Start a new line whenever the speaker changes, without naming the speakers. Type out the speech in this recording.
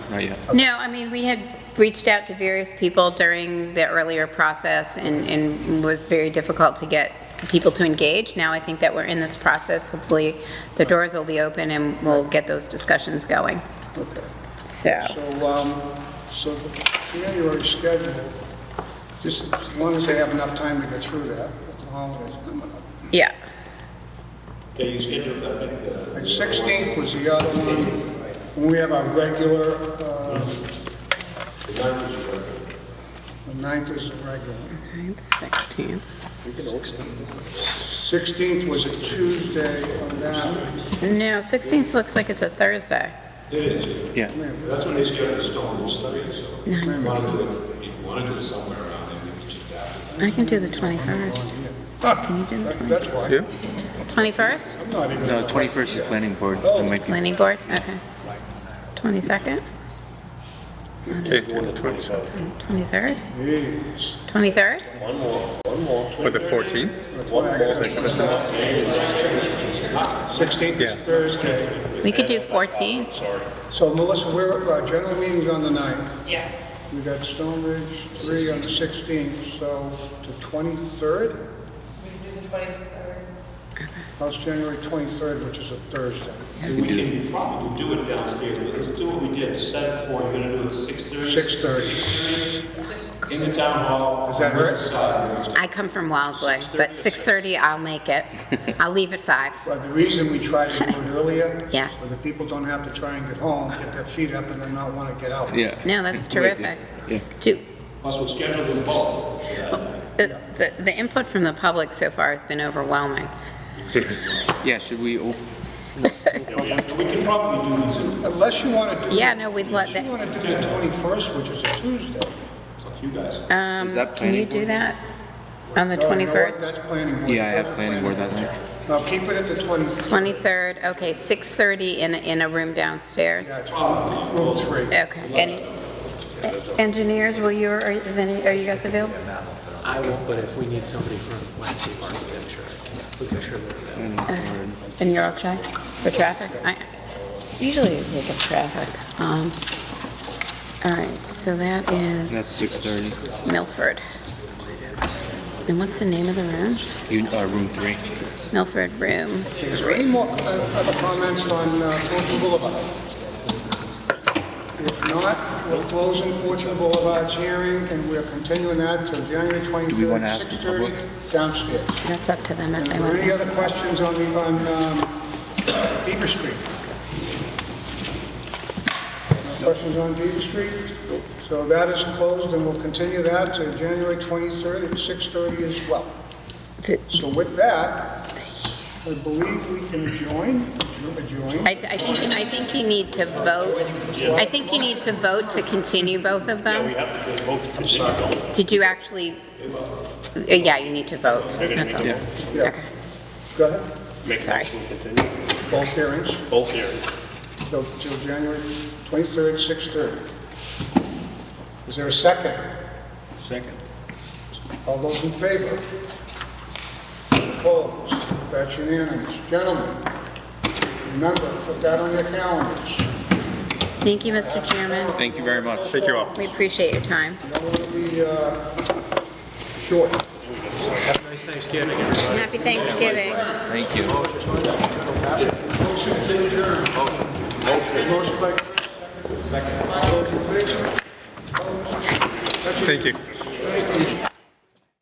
not yet.
No, I mean, we had reached out to various people during the earlier process and, and was very difficult to get people to engage. Now I think that we're in this process, hopefully the doors will be open and we'll get those discussions going.
Okay.
So,
So, um, so the January schedule, just as long as they have enough time to get through that, with the holidays coming up.
yeah,
Yeah, you scheduled, I think, the.
And 16th was the other one, when we have our regular, uh,
The ninth is your birthday.
the 9th is the regular.
16th.
16th was a Tuesday on that.
No, 16th looks like it's a Thursday.
It is.
Yeah.
That's when they scheduled the stone rules study, so. If you wanna do it- If you want to do it somewhere around there, maybe just after.
I can do the 21st. Can you do the
Ah. That- That's why,
Yeah?
21st?
I'm not even,
No, 21st is planning board. That might be-
Planning board, okay. 22nd,
Okay, do the 27th
23rd,
geez,
23rd?
or the 14th?
that's why I gotta. 16th is
Yeah.
Thursday.
We could do 14th.
So Melissa, we're, our general meeting's on the 9th. Yeah. We got Stone Ridge 3 on the 16th, so the 23rd? We can do the 23rd. How's January 23rd, which is a Thursday?
We can probably do it downstairs, but let's do what we did, set it for, you're gonna do it six thirty?
6:30.
In the town hall.
Does that hurt?
Side.
I come from Wellesley, but 6:30, I'll make it. I'll leave at 5.
But the reason we try to do it earlier?
Yeah.
So that people don't have to try and get home, get their feet up, and then not want to get out.
Yeah.
No, that's terrific.
Yeah.
Do,
Plus, we'll schedule them both for that night.
the, the- the input from the public so far has been overwhelming.
Yeah, should we, op-
Yeah, we have- We can probably do these, in-
Unless you want to do.
Yeah, no, we'd love
You want
that.
to do the 21st, which is a Tuesday.
it's up to you guys.
Um,
Is that
Can
planning
you do
board?
that on the
No, you know what?
21st?
That's planning board.
yeah, I have planning board that night.
No, keep it at the 23rd,
23rd, okay, 6:30 in, a- in a room downstairs.
rule 3.
Okay, and engineers, will you, or is any, are you guys available?
I won't, but if we need somebody for landscape architecture, I can- we can sure look at that.
And you're okay for traffic? I Usually it is a traffic. Um, All right, so that
that's
is
6:30,
Milford. And what's the name of the room?
You- uh, room three.
Milford Room.
Is there any more uh, other comments on uh, Fortune Boulevard? If not, we're closing Fortune Boulevard's hearing, and we're continuing that till January 23rd.
Do we wanna ask the public?
6:30 Downstairs.
That's up to them if
And
they
are
want
there any
to.
other questions on the, on um, Beaver Street? No Questions on Beaver Street? So that is closed, and we'll continue that to January 23rd at 6:30 as well. So with that, I believe we can adjourn, adjourn.
I, I think, I think you need to vote, I think you need to vote to continue both of them. Did you actually, uh, yeah, you need to vote, that's all.
Yeah.
Okay,
Go ahead,
sorry.
both hearings,
Both hearings.
till, till January 23rd, 6:30. Is there a second?
Second.
All those in favor? Opposed? That's unanimous. Gentlemen, remember, put that on your calendars.
Thank you, Mr. Chairman.
Thank you very much.
Thank you all.
We appreciate your time.
You don't want to be, uh, short.
Nice Thanksgiving, everybody.
Happy Thanksgiving.
Thank you.
Motion to adjourn. Motion. Motion by Chris. Second. All those in favor?
Thank you.
Thank you.